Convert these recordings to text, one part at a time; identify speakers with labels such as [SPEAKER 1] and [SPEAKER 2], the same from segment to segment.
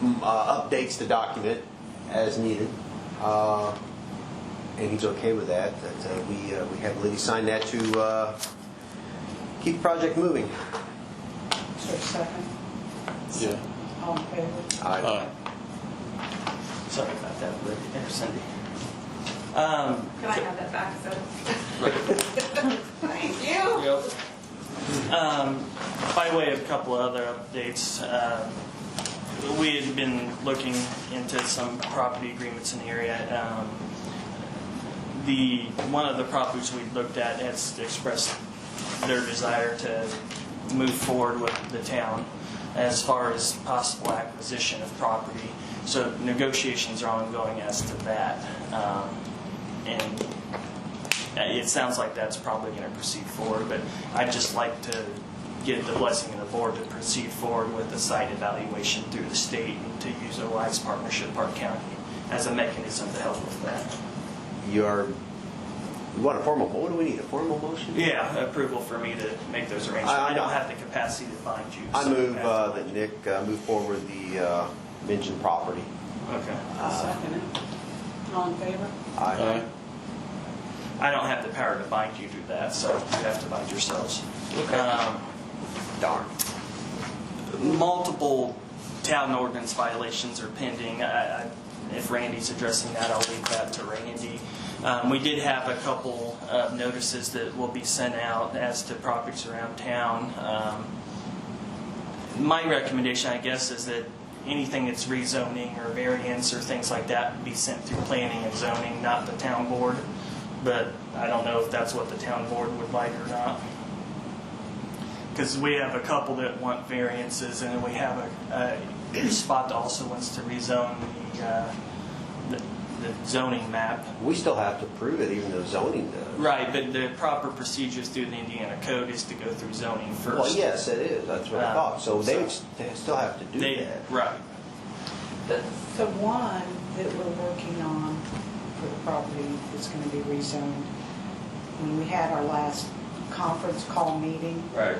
[SPEAKER 1] mm, uh, updates the document as needed, uh, and he's okay with that, that uh, we, uh, we have Liddy sign that to uh, keep the project moving.
[SPEAKER 2] Is there a second?
[SPEAKER 3] Yeah.
[SPEAKER 2] All in favor?
[SPEAKER 1] Aye.
[SPEAKER 4] Sorry about that, Lynn, or Cindy. Um,
[SPEAKER 5] Can I have that back, so? Thank you.
[SPEAKER 4] um, By way of a couple of other updates, um, we had been looking into some property agreements in the area. Um, The, one of the properties we looked at has expressed their desire to move forward with the town as far as possible acquisition of property. So negotiations are ongoing as to that. Um, And Uh, It sounds like that's probably going to proceed forward, but I'd just like to get the blessing of the board to proceed forward with the site evaluation through the state and to use OI's partnership, Park County, as a mechanism to help with that.
[SPEAKER 1] You are, you want a formal, what do we need, a formal motion?
[SPEAKER 4] Yeah, approval for me to make those arrangements.
[SPEAKER 1] I- I-
[SPEAKER 4] I don't have the capacity to bind you.
[SPEAKER 1] I
[SPEAKER 4] so
[SPEAKER 1] move
[SPEAKER 4] that's-
[SPEAKER 1] uh, that Nick uh, move forward the uh, mentioned property.
[SPEAKER 4] Okay.
[SPEAKER 1] uh,
[SPEAKER 2] Second it. All in favor?
[SPEAKER 1] Aye.
[SPEAKER 4] I don't have the power to bind you to that, so you have to bind yourselves. Um,
[SPEAKER 1] Darn.
[SPEAKER 4] multiple town ordinance violations are pending. I- I- If Randy's addressing that, I'll leave that to Randy. Um, We did have a couple of notices that will be sent out as to properties around town. Um, My recommendation, I guess, is that anything that's rezoning or variance or things like that be sent through planning and zoning, not the town board. But I don't know if that's what the town board would like or not. Because we have a couple that want variances, and then we have a, a spot that also wants to rezone the, uh, the the zoning map.
[SPEAKER 1] We still have to prove it, even though zoning does.
[SPEAKER 4] Right, but the proper procedures through the Indiana code is to go through zoning first.
[SPEAKER 1] Well, yes, it is, that's what I
[SPEAKER 4] Uh,
[SPEAKER 1] thought, so they would
[SPEAKER 4] so-
[SPEAKER 1] st- still have to do
[SPEAKER 4] They,
[SPEAKER 1] that.
[SPEAKER 4] right,
[SPEAKER 2] The the one that we're working on for the property that's going to be rezoned, when we had our last conference call meeting,
[SPEAKER 4] right.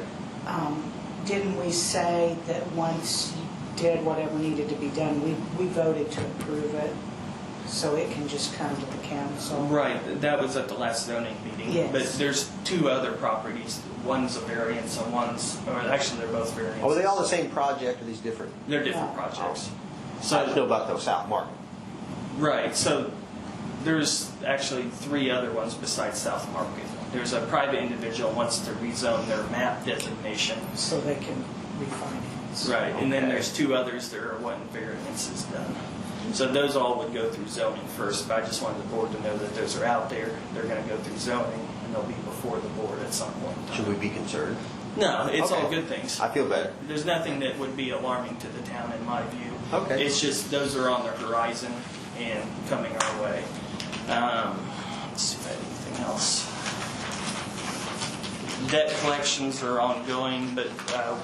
[SPEAKER 2] um, didn't we say that once you did whatever needed to be done, we we voted to approve it, so it can just come to the council?
[SPEAKER 4] Right, that was at the last zoning meeting.
[SPEAKER 2] Yes.
[SPEAKER 4] But there's two other properties, one's a variance and one's, or actually, they're both variances.
[SPEAKER 1] Oh, Are they all the same project, or these different?
[SPEAKER 4] They're different
[SPEAKER 2] No.
[SPEAKER 4] projects.
[SPEAKER 1] So I just know about the South Market.
[SPEAKER 4] Right, so there's actually three other ones besides South Market. There's a private individual wants to rezone their map designation.
[SPEAKER 2] So they can refinance.
[SPEAKER 4] Right. And then there's two others that are wanting variances done. So those all would go through zoning first, but I just wanted the board to know that those are out there. They're gonna go through zoning and they'll be before the board at some point. in time.
[SPEAKER 1] Should we be concerned?
[SPEAKER 4] No, it's all
[SPEAKER 1] Okay.
[SPEAKER 4] good things.
[SPEAKER 1] I feel better.
[SPEAKER 4] There's nothing that would be alarming to the town in my view.
[SPEAKER 1] Okay.
[SPEAKER 4] It's just those are on the horizon and coming our way. Um, let's see if I have anything else. Debt collections are ongoing, but uh,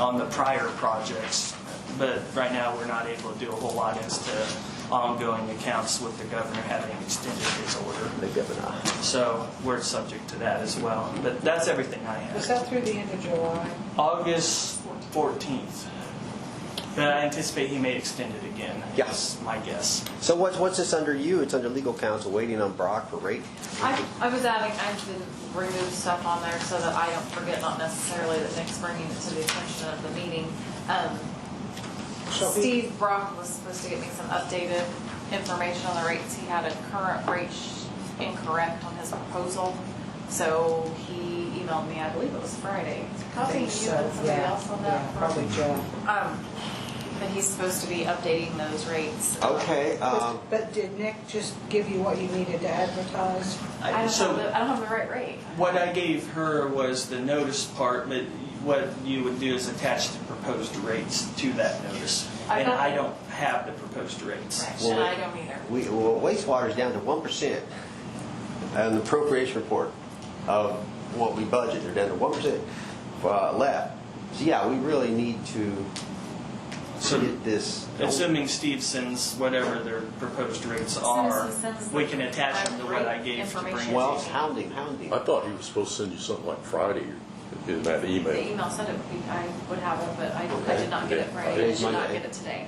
[SPEAKER 4] on the prior projects. But right now, we're not able to do a whole lot as to ongoing accounts with the governor having extended his order.
[SPEAKER 1] The governor.
[SPEAKER 4] So we're subject to that as well. But that's everything I have.
[SPEAKER 2] Was that through the end of July?
[SPEAKER 4] August 14th. But I anticipate he may extend it again.
[SPEAKER 1] Yeah.
[SPEAKER 4] is My guess.
[SPEAKER 1] So what's, what's this under you? It's under legal counsel, waiting on Brock for rate?
[SPEAKER 5] I, I was adding, I did remove stuff on there so that I don't forget, not necessarily that Nick's bringing it to the attention of the meeting. Um,
[SPEAKER 2] So he-
[SPEAKER 5] Steve Brock was supposed to get me some updated information on the rates. He had a current rate sh- incorrect on his proposal. So he emailed me, I believe it was Friday.
[SPEAKER 2] think
[SPEAKER 5] Copy you and
[SPEAKER 2] so,
[SPEAKER 5] somebody
[SPEAKER 2] yeah,
[SPEAKER 5] else on that.
[SPEAKER 2] yeah,
[SPEAKER 5] from-
[SPEAKER 2] Probably Joe.
[SPEAKER 5] Um, but he's supposed to be updating those rates.
[SPEAKER 1] Okay, um,
[SPEAKER 2] But did Nick just give you what you needed to advertise?
[SPEAKER 5] I don't have
[SPEAKER 4] So
[SPEAKER 5] the, I don't have the right rate.
[SPEAKER 4] what I gave her was the notice part, but what you would do is attach the proposed rates to that notice.
[SPEAKER 5] I
[SPEAKER 4] And
[SPEAKER 5] got
[SPEAKER 4] I
[SPEAKER 5] it.
[SPEAKER 4] don't have the proposed rates.
[SPEAKER 5] Right,
[SPEAKER 1] Well,
[SPEAKER 5] and
[SPEAKER 1] we-
[SPEAKER 5] I don't either.
[SPEAKER 1] we, well, wastewater's down to 1%. And the appropriation report of what we budget, they're down to 1% uh, left. So yeah, we really need to
[SPEAKER 4] So-
[SPEAKER 1] get this.
[SPEAKER 4] Assuming Steve sends whatever their proposed rates
[SPEAKER 5] As soon as
[SPEAKER 4] are,
[SPEAKER 5] he sends
[SPEAKER 4] we
[SPEAKER 5] the
[SPEAKER 4] can attach them to what I
[SPEAKER 5] rate
[SPEAKER 4] gave to
[SPEAKER 5] information.
[SPEAKER 4] Brandy.
[SPEAKER 1] Well, hounding, hounding.
[SPEAKER 3] I thought he was supposed to send you something like Friday
[SPEAKER 6] Is that email?
[SPEAKER 5] The email said it would be, I would have it, but I I did not get it
[SPEAKER 6] Okay.
[SPEAKER 5] right. I
[SPEAKER 3] Today's
[SPEAKER 5] did not
[SPEAKER 3] Monday.
[SPEAKER 5] get it today.